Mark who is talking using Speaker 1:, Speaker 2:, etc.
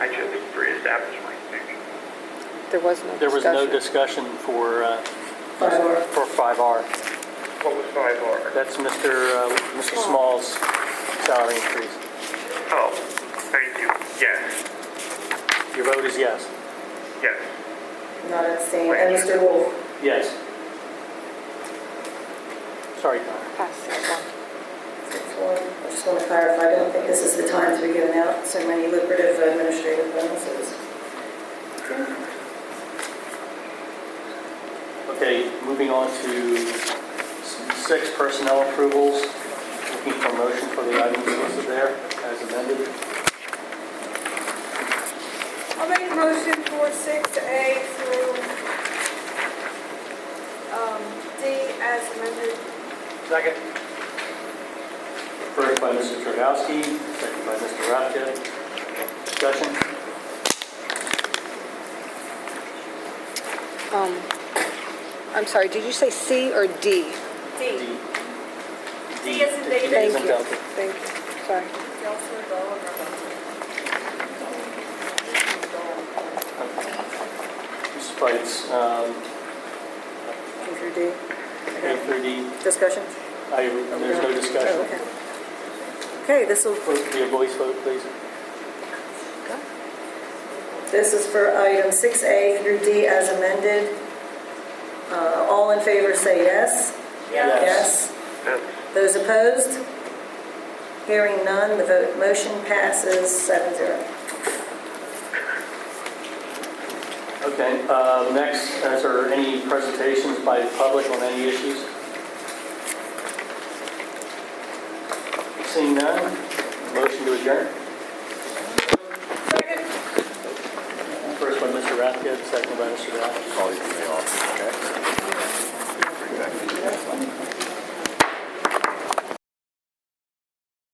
Speaker 1: establishment, maybe.
Speaker 2: There was no discussion.
Speaker 3: There was no discussion for, uh, for 5R.
Speaker 1: What was five R?
Speaker 3: That's Mr. uh, Mr. Small's salary increase.
Speaker 1: Oh, thank you, yes,
Speaker 3: Your vote is yes?
Speaker 1: yes.
Speaker 4: Not abstain, and Mr. Wolf?
Speaker 3: Yes. Sorry, Connor.
Speaker 2: Pass six one.
Speaker 4: Six, one. I just want to clarify, I don't think this is the time to be giving out so many lucrative administrative bonuses.
Speaker 3: Okay, moving on to six personnel approvals. Looking for a motion for the items listed there as amended.
Speaker 5: I'll make a motion for six A through um, D as amended.
Speaker 3: Second. First by Mrs. Dragowski, second by Mr. Rathke. Discussion?
Speaker 2: Um, I'm sorry, did you say C or D?
Speaker 5: D.
Speaker 3: D.
Speaker 5: D as in David.
Speaker 3: D as
Speaker 2: Thank
Speaker 3: in
Speaker 2: you,
Speaker 3: Delta.
Speaker 2: thank you, sorry.
Speaker 3: Mrs. Bites, um,
Speaker 4: Andrew D.
Speaker 3: A through D,
Speaker 4: Discussion?
Speaker 3: I, there's no
Speaker 4: Oh,
Speaker 3: discussion.
Speaker 4: okay. Okay, this will,
Speaker 3: Please be a voice vote, please.
Speaker 4: this is for item 6A through D as amended. Uh, All in favor say yes.
Speaker 3: Yes.
Speaker 4: Yes. Those opposed? Hearing none, the vote, motion passes seven zero.
Speaker 3: Okay, uh, next, is there any presentations by the public on any issues? Seeing none, motion to adjourn.
Speaker 5: Second.
Speaker 3: First by Mr. Rathke, second by Mr. Rathke.
Speaker 6: call you from the office, okay?